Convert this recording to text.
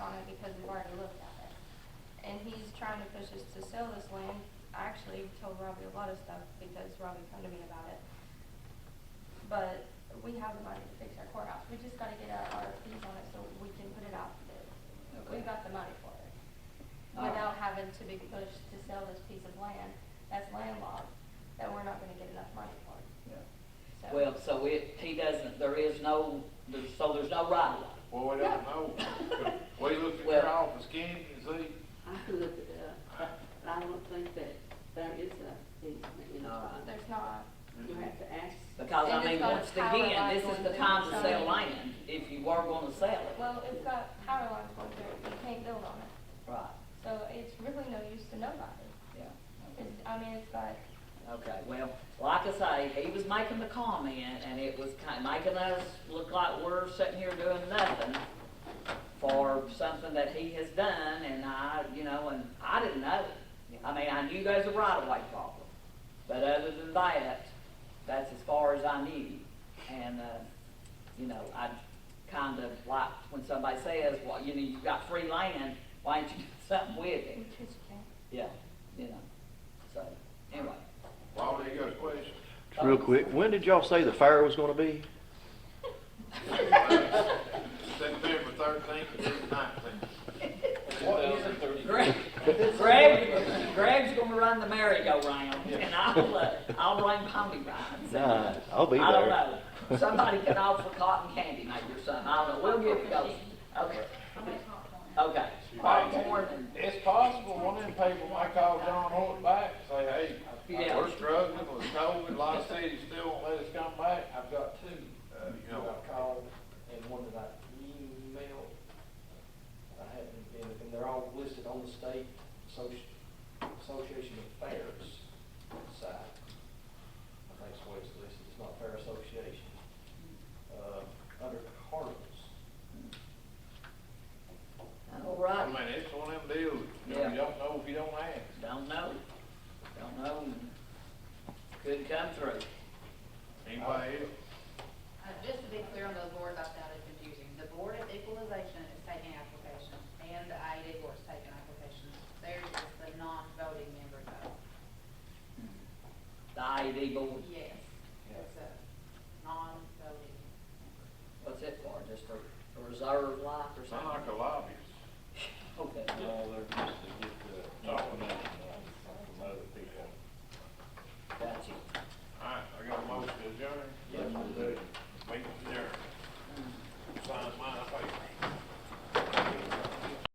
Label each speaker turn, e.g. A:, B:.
A: was just to sell this land. I actually told Robbie a lot of stuff because Robbie come to me about it. But we have the money to fix our courthouse. We just gotta get our RFPs on it so we can put it out. there.
B: Okay.
A: We've got the money for it.
B: All right.
A: Without having to be pushed to sell this piece of land that's landlocked, that we're not gonna get enough money for. So-
B: Well, so it, he doesn't, there is no, there's, so there's no right of way.
C: Well, we don't know. We looked at
B: Well-
C: your office, Ken, and see,
D: I can look it up, but I don't think that there is a easement in the
B: Alright.
D: front.
A: There's not.
D: You have to ask.
B: Because I
A: They just
B: mean,
A: got a
B: once
A: power
B: again,
A: line
B: this is
A: going
B: the
A: through
B: time to
A: the
B: sell
A: side.
B: land, if you were gonna sell it.
A: Well, it's got power lines going through it. You can't build on it.
B: Right,
A: So it's really no use to nobody.
B: yeah.
A: It's, I mean, it's like,
B: Okay, well, like I say, he was making the comment, and it was kind, making us look like we're sitting here doing nothing for something that he has done, and I, you know, and I didn't know. I mean, I knew there's a right-of-way problem, but other than that, that's as far as I knew. And, uh, you know, I kind of like, when somebody says, well, you know, you've got free land, why ain't you doing something with it?
A: we just can't.
B: Yeah, you know, so, anyway.
C: well, there you go, question.
E: Real quick, when did y'all say the fire was gonna be?
C: September thirteenth and nineteenth.
B: Greg, Greg, Greg's gonna run the merry-go-round, and I'll, uh, I'll run pony rides.
E: Nah, I'll be
B: I don't
E: there.
B: know, somebody can offer cotton candy maybe or something, I don't know, we'll get it going. Okay, okay, popcorn and,
C: It's possible one of them people might call John Holt back and say, hey,
B: Yeah.
C: we're struggling with COVID, a lot of cities still won't let us come back. I've got two, uh, you know.
F: I called and one that I emailed. I haven't been, and they're all listed on the state associ- association of fairs site. I think it's the way it's listed, it's not fair association, uh, under carnivals.
B: all
C: I
B: right,
C: mean, it's one of them deals, you know, you
B: Yeah.
C: don't know if you don't ask.
B: don't know, don't know, and couldn't come through.
C: Anybody else?
G: Uh, Just to be clear on those boards, I found it confusing. The Board of Equalization is taking applications, and the IED Board is taking applications. Theirs is the non-voting member though.
B: The IED board,
C: Oh.